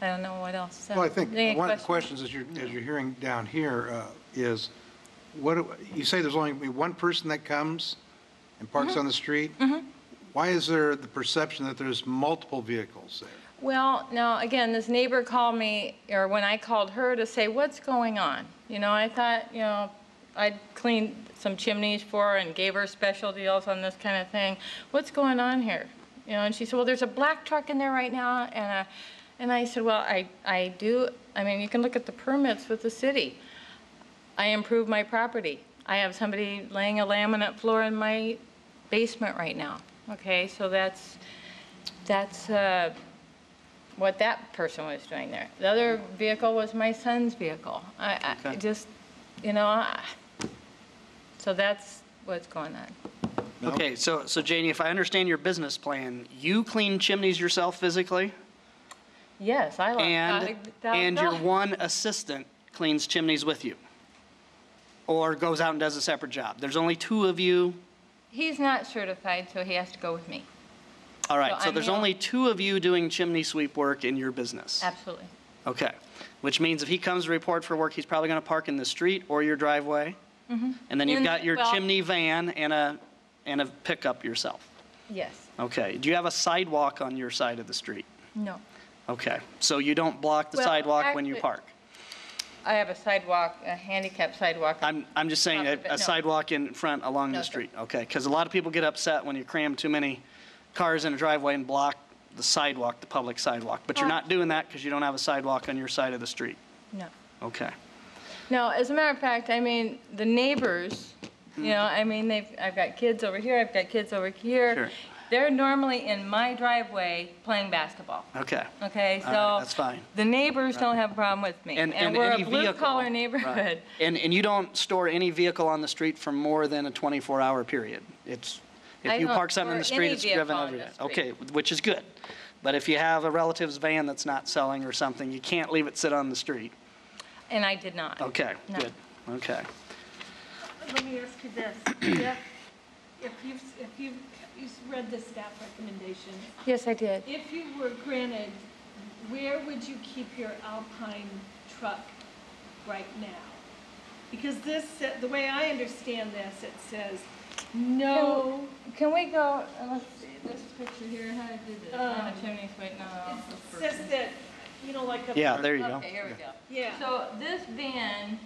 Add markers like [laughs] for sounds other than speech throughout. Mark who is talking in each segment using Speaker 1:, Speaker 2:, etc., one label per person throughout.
Speaker 1: I don't know what else. so-
Speaker 2: Well, I think
Speaker 1: Any
Speaker 2: one of the
Speaker 1: questions?
Speaker 2: questions as you're, as you're hearing down here uh, is, what, do- you say there's only one person that comes and parks
Speaker 1: Mm-hmm.
Speaker 2: on the street? Why is there the perception that there's multiple vehicles there?
Speaker 1: Well, now, again, this neighbor called me, or when I called her to say, what's going on? You know, I thought, you know, I'd cleaned some chimneys for her and gave her special deals on this kind of thing. What's going on here? You know, and she said, well, there's a black truck in there right now, and, uh, and I said, well, I, I do, I mean, you can look at the permits with the city. I improve my property. I have somebody laying a laminate floor in my basement right now, okay? So that's, that's, uh, what that person was doing there. The other vehicle was my son's vehicle. I, I
Speaker 2: Okay.
Speaker 1: just, you know, I- so that's what's going on.
Speaker 2: No?
Speaker 3: Okay, so, so Janie, if I understand your business plan, you clean chimneys yourself physically,
Speaker 1: Yes, I
Speaker 3: and,
Speaker 1: like that.
Speaker 3: and your one assistant cleans chimneys with you? Or goes out and does a separate job? There's only two of you?
Speaker 1: He's not certified, so he has to go with me.
Speaker 3: All right,
Speaker 1: So
Speaker 3: so
Speaker 1: I'm
Speaker 3: there's
Speaker 1: the-
Speaker 3: only two of you doing chimney sweep work in your business?
Speaker 1: Absolutely.
Speaker 3: Okay, which means if he comes to report for work, he's probably going to park in the street or your driveway? And then you've
Speaker 1: In-
Speaker 3: got your
Speaker 1: Mm-hmm. well-
Speaker 3: chimney van and a, and a pickup yourself?
Speaker 1: Yes.
Speaker 3: Okay, do you have a sidewalk on your side of the street?
Speaker 1: No.
Speaker 3: Okay, so you don't block the
Speaker 1: Well,
Speaker 3: sidewalk when you
Speaker 1: actu-
Speaker 3: park?
Speaker 1: I have a sidewalk, a handicap sidewalk.
Speaker 3: I'm, I'm just saying
Speaker 1: Not
Speaker 3: a-
Speaker 1: the- no.
Speaker 3: a sidewalk in front along
Speaker 1: No,
Speaker 3: the
Speaker 1: sir.
Speaker 3: street, okay? Because a lot of people get upset when you cram too many cars in a driveway and block the sidewalk, the public sidewalk. But you're
Speaker 1: Correct.
Speaker 3: not doing that because you don't have a sidewalk on your side of the street,
Speaker 1: No.
Speaker 3: okay?
Speaker 1: No, as a matter of fact, I mean, the neighbors, you know, I mean, they've, I've got kids over here, I've got kids over
Speaker 3: Sure.
Speaker 1: here. They're normally in my driveway playing basketball.
Speaker 3: Okay,
Speaker 1: Okay,
Speaker 3: All right,
Speaker 1: so.
Speaker 3: that's fine.
Speaker 1: The neighbors don't have a problem with [laughs] me.
Speaker 3: and, and
Speaker 1: we're a
Speaker 3: any vehicle.
Speaker 1: blue-collar
Speaker 3: right.
Speaker 1: neighborhood.
Speaker 3: And, and you don't store any vehicle on the street for more than a 24-hour period. It's,
Speaker 1: I
Speaker 3: if you
Speaker 1: don't
Speaker 3: park something in the
Speaker 1: store
Speaker 3: street,
Speaker 1: any
Speaker 3: it's driven
Speaker 1: vehicle on
Speaker 3: every
Speaker 1: the
Speaker 3: day. Okay,
Speaker 1: street.
Speaker 3: which is good. But if you have a relative's van that's not selling or something, you can't leave it sit on the street.
Speaker 1: And I did not.
Speaker 3: Okay,
Speaker 1: No.
Speaker 3: good, okay.
Speaker 4: Let me ask you this. If if you've, if you've, you've read the staff recommendation,
Speaker 1: Yes, I did.
Speaker 4: if you were granted, where would you keep your Alpine truck right now? Because this, sa- the way I understand this, it says, no,
Speaker 1: Can we go, uh, let's see, this picture here, how did this?
Speaker 4: Um,
Speaker 1: chimney's wait, no,
Speaker 4: it
Speaker 1: no, no.
Speaker 4: says that, you know, like a.
Speaker 3: Yeah, there you go.
Speaker 1: Okay, here we go.
Speaker 4: Yeah.
Speaker 1: So this van,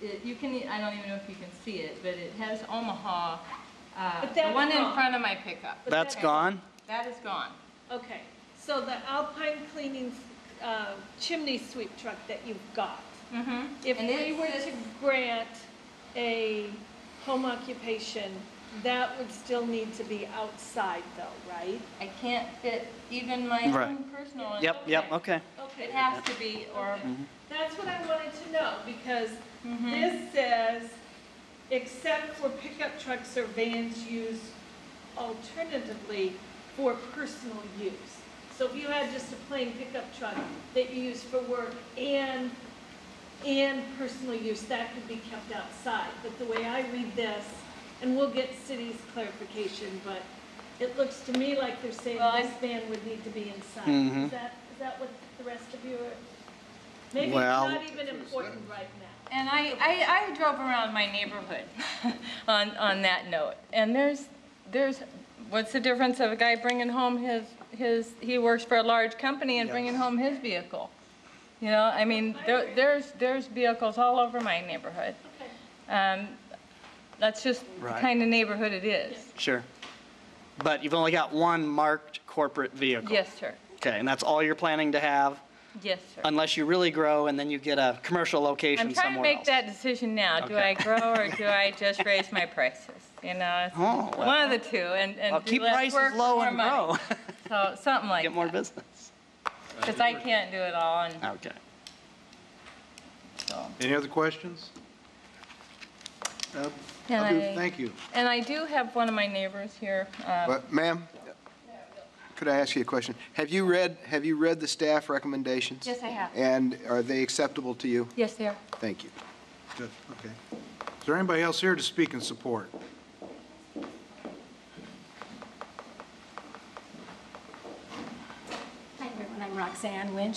Speaker 1: it- you can, e- I don't even know if you can see it, but it has Omaha, uh,
Speaker 4: But
Speaker 1: the
Speaker 4: that's
Speaker 1: one in
Speaker 4: gone.
Speaker 1: front of my pickup.
Speaker 3: That's gone?
Speaker 1: That is gone.
Speaker 4: Okay, so the Alpine cleaning uh, chimney sweep truck that you've got,
Speaker 1: Mm-hmm.
Speaker 4: if
Speaker 1: And it
Speaker 4: we were
Speaker 1: says-
Speaker 4: to grant a home occupation, that would still need to be outside though, right?
Speaker 1: I can't fit even my
Speaker 3: Right.
Speaker 1: own personal. one.
Speaker 3: Yep, yep, okay.
Speaker 1: It
Speaker 4: Okay,
Speaker 1: has to be, or,
Speaker 4: that's what I wanted to know, because this says, except for pickup trucks or vans used alternatively for personal use. So if you had just a plain pickup truck that you use for work and, and personal use, that could be kept outside. But the way I read this, and we'll get city's clarification, but it looks to me like they're saying
Speaker 1: Well, I-
Speaker 4: this van would need to be inside.
Speaker 3: Mhm.
Speaker 4: Is that, is that what the rest of you are? Maybe it's
Speaker 3: Well-
Speaker 4: not even important right now.
Speaker 1: and I, I, I drove around my neighborhood [laughs] on, on that note. And there's, there's, what's the difference of a guy bringing home his, his, he works for a large company and bringing home his vehicle? You know, I mean, there, there's, there's vehicles all over my neighborhood.
Speaker 4: Okay.
Speaker 1: Um, that's just the
Speaker 3: Right.
Speaker 1: kind of neighborhood it is.
Speaker 3: Sure. But you've only got one marked corporate vehicle?
Speaker 1: Yes, sir.
Speaker 3: Okay, and that's all you're planning to have,
Speaker 1: Yes, sir.
Speaker 3: unless you really grow and then you get a commercial
Speaker 1: I'm
Speaker 3: location
Speaker 1: trying to
Speaker 3: somewhere
Speaker 1: make
Speaker 3: else?
Speaker 1: that decision now. Do
Speaker 3: Okay.
Speaker 1: I grow
Speaker 3: [laughs]
Speaker 1: or do I just raise my prices? You know, it's
Speaker 3: Oh, well.
Speaker 1: one of the two, and, and
Speaker 3: Well,
Speaker 1: do
Speaker 3: keep
Speaker 1: less
Speaker 3: prices
Speaker 1: work for
Speaker 3: low
Speaker 1: more
Speaker 3: and
Speaker 1: money.
Speaker 3: grow,
Speaker 1: So
Speaker 3: [laughs]
Speaker 1: something like
Speaker 3: get more business.
Speaker 1: because I can't do it all, and
Speaker 3: Okay.
Speaker 1: so.
Speaker 2: Any other questions? Uh,
Speaker 1: Can
Speaker 2: I'll do-
Speaker 1: I-
Speaker 2: Thank you.
Speaker 1: And I do have one of my neighbors here. um,
Speaker 5: But ma'am, could I ask you a question? Have you read, have you read the staff recommendations?
Speaker 1: Yes, I have.
Speaker 5: And are they acceptable to you?
Speaker 1: Yes, there.
Speaker 5: Thank you.
Speaker 2: Good, okay. Is there anybody else here to speak in support?
Speaker 6: Hi, everyone. I'm Roxanne Winch.